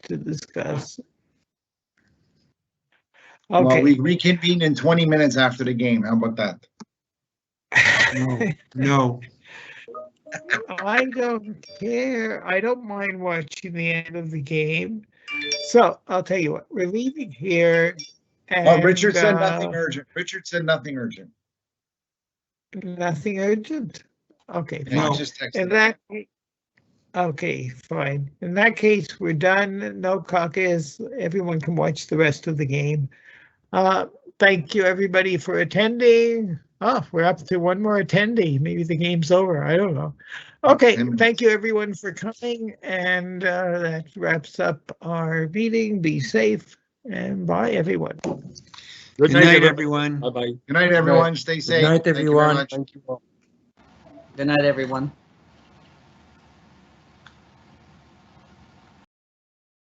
to discuss. Well, Okay. we reconvene in 20 minutes after the game. How about that? No, no, I don't care. I don't mind watching the end of the game. So I'll tell you what, we're leaving here. Well, Oh, Richard and, said nothing uh, urgent. Richard said nothing urgent. Nothing urgent. Okay, And fine. he just In texted. that, ca- okay, fine. In that case, we're done. No caucus. Everyone can watch the rest of the game. Uh, thank you, everybody, for attending. Oh, we're up to one more attendee. Maybe the game's over. I don't know. Okay, Ten thank you, everyone, for coming. And uh, that wraps up our meeting. Be safe and bye, everyone. good night, everyone. Bye-bye. Good night, everyone. Stay safe. night, Thank you very everyone. much. Thank you all. Good night, everyone.